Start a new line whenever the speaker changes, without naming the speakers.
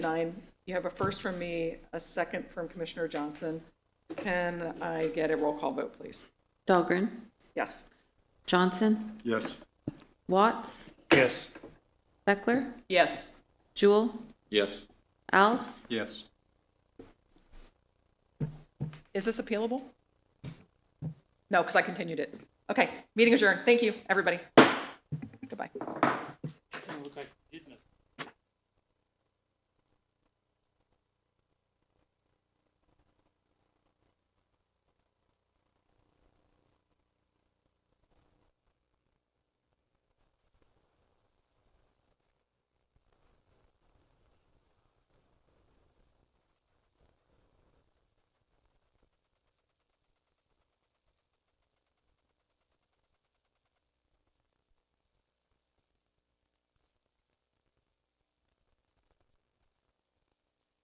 nine, you have a first from me, a second from Commissioner Johnson. Can I get a roll call vote, please?
Dahlgren,
Yes.
Johnson,
Yes.
Watts,
Yes.
Beckler,
Yes.
Jewel,
Yes.
Alves,
Yes.
Is this appealable? No, because I continued it. Okay, meeting adjourned. Thank you, everybody. Goodbye.